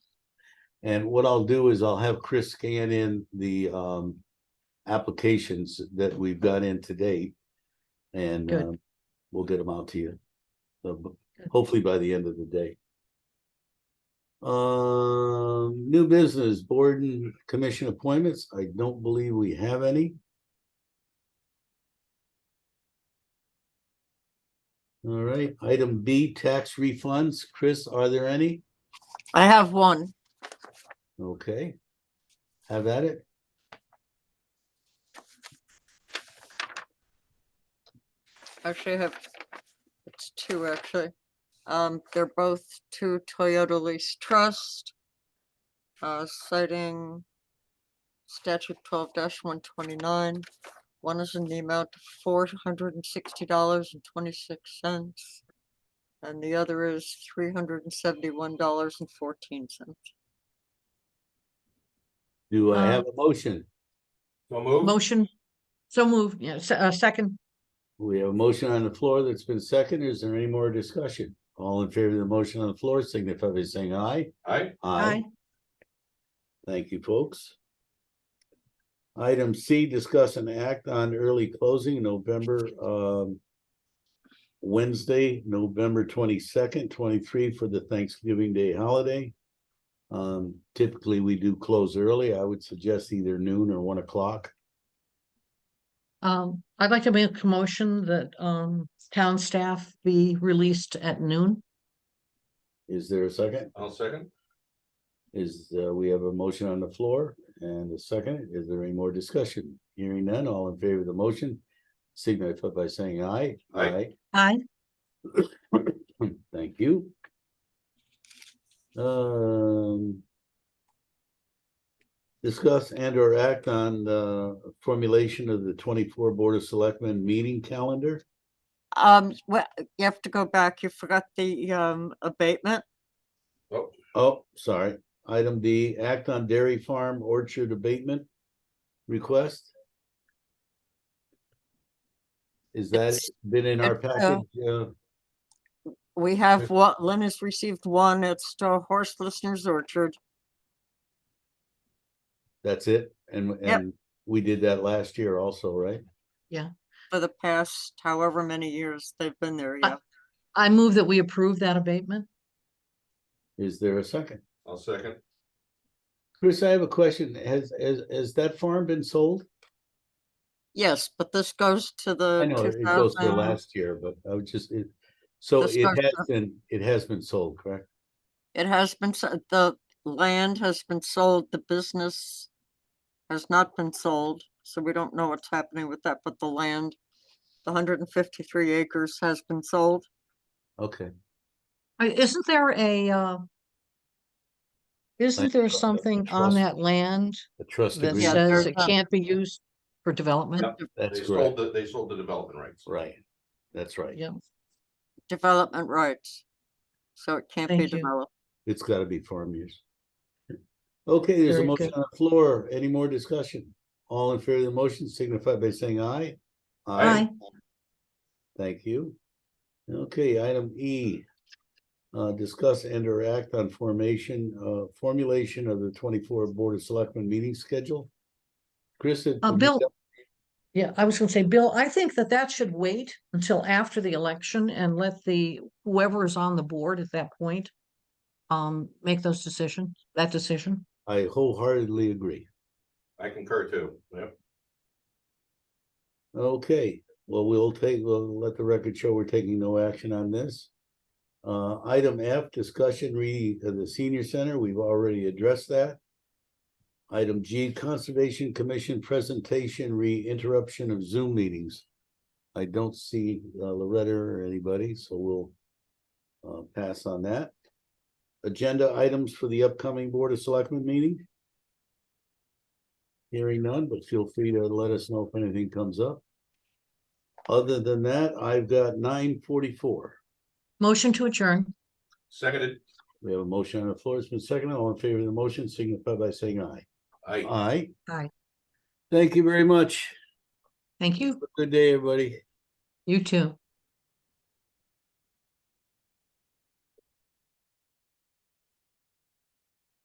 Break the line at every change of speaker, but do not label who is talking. And what I'll do is I'll have Chris scan in the um applications that we've got in today. And
Good.
um, we'll get them out to you. So, b- hopefully by the end of the day. Um, new business, board and commission appointments. I don't believe we have any. All right, item B, tax refunds. Chris, are there any?
I have one.
Okay. Have at it.
Actually, I have, it's two actually. Um, they're both to Toyota Lease Trust. Uh, citing statute twelve one twenty-nine. One is in the amount of four hundred and sixty dollars and twenty-six cents. And the other is three hundred and seventy-one dollars and fourteen cents.
Do I
Uh,
have a motion?
So moved.
Motion, so moved, yeah, se- uh, second,
We have a motion on the floor that's been seconded. Is there any more discussion? All in favor of the motion on the floor signify by saying aye.
Aye.
aye,
Thank you, folks. Item C, discuss and act on early closing November, um, Wednesday, November twenty-second, twenty-three for the Thanksgiving Day holiday. Um, typically, we do close early. I would suggest either noon or one o'clock.
um, I'd like to make a motion that, um, town staff be released at noon.
Is there a second?
I'll second.
Is, uh, we have a motion on the floor and a second. Is there any more discussion? Hearing none, all in favor of the motion, signify by saying aye.
Aye.
Aye,
Hmm, Thank you. Um. Discuss and or act on the formulation of the twenty-four Board of Selectmen meeting calendar.
Um, well, you have to go back. You forgot the, um, abatement.
Oh, sorry. Item D, act on dairy farm orchard abatement request. Is that
It's-
been in our
it's, uh,
package? uh,
We have what, Lynn has received one at Star Horse Listeners Orchard.
That's it? And, and we did that last year also, right?
for the past however many years they've been there,
Uh,
yeah.
I move that we approve that abatement.
Is there a second?
I'll second.
Chris, I have a question. Has, has, has that farm been sold?
Yes, but this goes to
I
the
know it
two
goes to
thousand,
last year, but I was just, it, so
This
it
goes
has
to-
been, it has been sold, correct?
it has been, s- the land has been sold, the business has not been sold, so we don't know what's happening with that, but the land, the hundred and fifty-three acres has been sold.
Okay,
Uh, Isn't there a, uh, isn't there
trust-
something on
trust-
that land
the trust
that
agreement,
Yeah.
says
there's uh,
it
a-
can't be used for development?
Yep.
that's
They sold
correct,
the, they sold the development rights.
right, that's right.
Yeah,
Development rights, so it can't be
Thank you.
developed.
It's gotta be farm use. Okay, there's a
Very
motion
good.
on the floor. Any more discussion? All in favor of the motion signify by saying aye.
aye,
Thank you. Okay, item E. Uh, discuss and or act on formation, uh, formulation of the twenty-four Board of Selectmen meeting schedule. Chris. did-
Uh,
would you
Bill-
tell-
yeah, I was gonna say, Bill, I think that that should wait until after the election and let the, whoever is on the board at that point um, make those decisions, that decision.
I wholeheartedly agree.
I concur too. Yep.
Okay, well, we'll take, we'll let the record show we're taking no action on this. Uh, item F, discussion re, of the senior center, we've already addressed that. Item G, Conservation Commission presentation re-interruption of Zoom meetings. I don't see uh, Loretta or anybody, so we'll uh, pass on that. Agenda items for the upcoming Board of Selectmen meeting. Hearing none, but feel free to let us know if anything comes up. Other than that, I've got nine forty-four.
Motion to adjourn.
Seconded.
We have a motion on the floor. It's been seconded. All in favor of the motion signify by saying aye.
Aye.
Aye.
Aye.
Thank you very much.
Thank you.
Good day, everybody.
You too.